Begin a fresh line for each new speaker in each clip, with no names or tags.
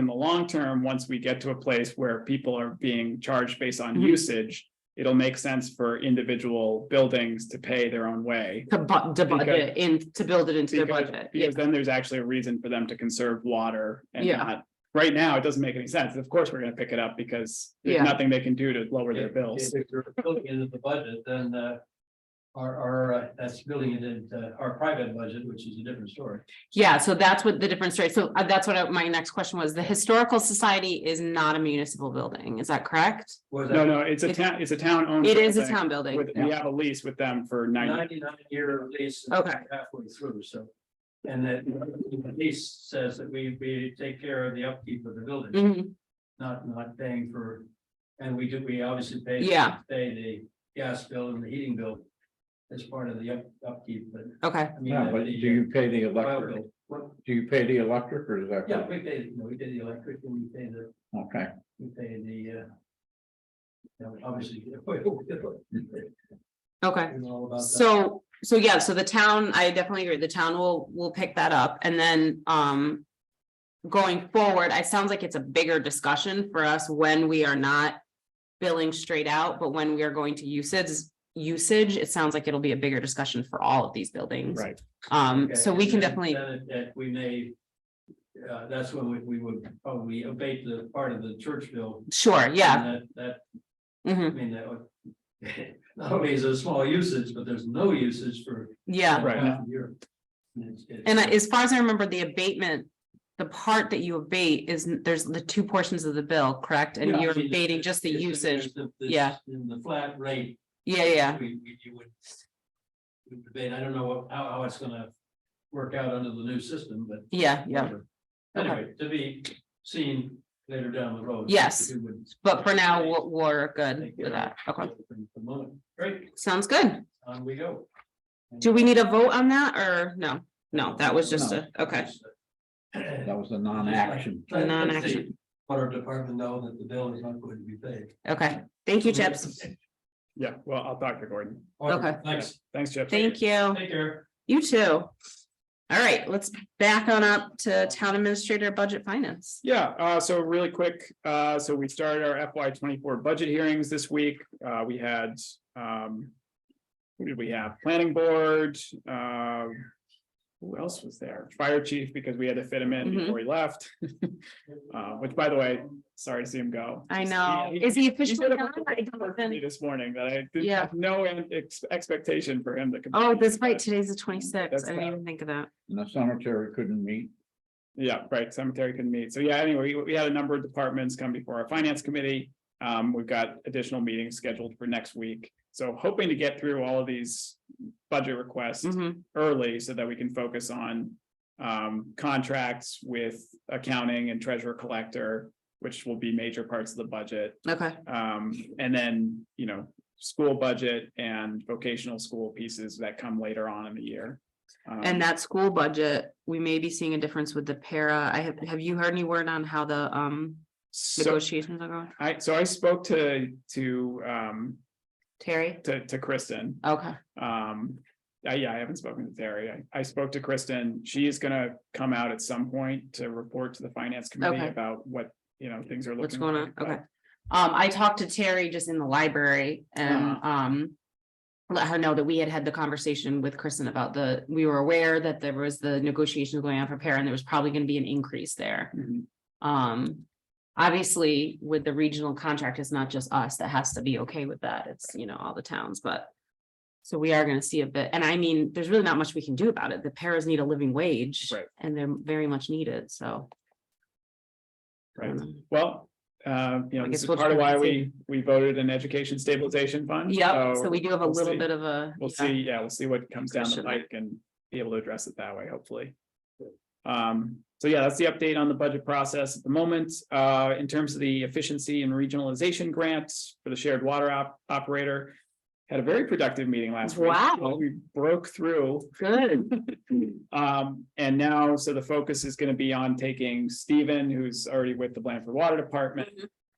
in the long term, once we get to a place where people are being charged based on
Mhm.
usage, it'll make sense for individual buildings to pay their own way.
to bu- to budget in, to build it into their
Because,
budget. Yeah.
because then there's actually a reason for them to conserve water and
Yeah.
not, right now, it doesn't make any sense. Of course, we're gonna pick it up because there's
Yeah.
nothing they can do to lower their
If-
bills.
If you're building it into the budget, then uh, our, our, uh, that's building it into our private budget, which is a different story.
Yeah, so that's what the difference, right? So uh, that's what I- my next question was. The Historical Society is not a municipal building, is that correct?
Was
No,
that
no, it's a
It-
town, it's a town owned.
It is a town building.
Um, With, we have a lease with them for ninety,
ninety-nine year lease? and
Okay.
Halfway through, so. And that lease says that we, we take care of the upkeep of the building,
Mhm.
not, not paying for, and we do, we obviously pay.
Yeah.
Pay the gas bill and the heating bill as part of the up- upkeep, but
Okay,
I mean.
Yeah, but do
the,
you pay the
uh, oil
electric,
bill. What-
do you pay the electric or is that?
Yeah, we pay, no, we did the electric and we pay the
Okay,
We pay the, uh. you know, obviously. we
okay.
know all about that.
So, so yeah, so the town, I definitely agree, the town will, will pick that up and then, um. Going forward, it sounds like it's a bigger discussion for us when we are not billing straight out, but when we are going to usage, usage, it sounds like it'll be a bigger discussion for all of these buildings.
right,
Um, so
Okay,
we can
and then-
definitely,
then it- That we may, uh, that's when we, we would probably abate the part of the church bill.
sure, yeah.
And That,
mhm.
that, I mean, that would. Not only is it a small usage, but there's no usage for.
Yeah,
Right.
half a year. And it's- it's-
and I- as far as I remember, the abatement, the part that you abate is, n- there's the two portions of the bill, correct?
Yeah,
And
I
you're
mean,
abating just the
it's-
usage.
it's the- this-
yeah.
In the flat rate.
Yeah, yeah,
We, we, you would. would Debate, I don't know what, how, how it's gonna work out under the new system, but.
yeah, yeah.
Anyway, to be seen later down the road.
Yes,
We would-
But for now, we're, we're good
Thank you.
with that. Okay,
For the moment. Great,
sounds good.
on we go.
Do we need a vote on that or no? No, that was just a, okay.
that was a non-action.
Let- let's
Non-action.
see, Let our department know that the bill is not going to be paid.
Okay, thank you, Chips.
yeah, well, I'll talk to Gordon.
Okay.
Thanks,
Thanks, Chip.
Thank you.
take care.
You too. All right, let's back on up to Town Administrator Budget Finance.
Yeah, uh, so really quick, uh, so we started our FY twenty-four budget hearings this week. Uh, we had, um. Who did we have? Planning Board, uh. Who else was there? Fire Chief, because we had to fit him in
Mhm.
before he left. Uh, which, by the way, sorry to see him go.
I know.
He- he-
Is he
he
officially
did a
done? I
report
don't
for
even-
me This morning that I didn't
Yeah.
have no ex- expectation for him to. come.
Oh, that's right. Today's the twenty-sixth.
That's
I didn't
bad.
even think of that.
And the cemetery couldn't meet.
Yeah, right, cemetery can meet. So yeah, anyway, we- we had a number of departments come before our finance committee. Um, we've got additional meetings scheduled for next week. So hoping to get through all of these budget requests
Mhm.
early so that we can focus on um, contracts with accounting and treasurer collector, which will be major parts of the budget.
Okay,
Um, and then, you know, school budget and vocational school pieces that come later on in the year. Um,
and that school budget, we may be seeing a difference with the para. I have, have you heard any word on how the um
so-
negotiations are going?
I, so I spoke to, to, um,
Terry?
to, to Kristen.
Okay,
Um, I, yeah, I haven't spoken to Terry. I, I spoke to Kristen. She is gonna come out at some point to report to the finance committee
Okay.
about what, you know, things are looking.
what's going on?
like, but-
Okay. Um, I talked to Terry just in the library and um let her know that we had had the conversation with Kristen about the, we were aware that there was the negotiations going on for para and there was probably gonna be an increase there.
Mhm.
Um, obviously, with the regional contract, it's not just us that has to be okay with that. It's, you know, all the towns, but. So we are gonna see a bit, and I mean, there's really not much we can do about it. The paras need a living wage.
Right.
And they're very much needed, so. I don't
Right.
know.
Well, uh, you
I
know,
guess
this is
we'll
part of
try
why
and
we, we voted an education stabilization fund.
Yep, so we do have a
we'll
little
see.
bit of a.
We'll
yeah.
see, yeah, we'll see what comes down the
Discussion.
pike and be able to address it that way, hopefully. Um, so yeah, that's the update on the budget process at the moment. Uh, in terms of the efficiency and regionalization grants for the shared water op- operator. Had a very productive meeting last week.
Wow.
We broke through.
Good,
Um, and now, so the focus is gonna be on taking Steven, who's already with the Blanford Water Department.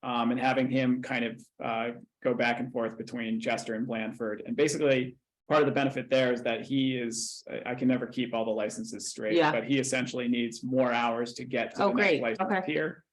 Um, and having him kind of, uh, go back and forth between Chester and Blanford. And basically, part of the benefit there is that he is, I, I can never keep all the licenses straight.
Yeah.
But he essentially needs more hours to get to
Oh,
the next
great.
license
Okay.
here.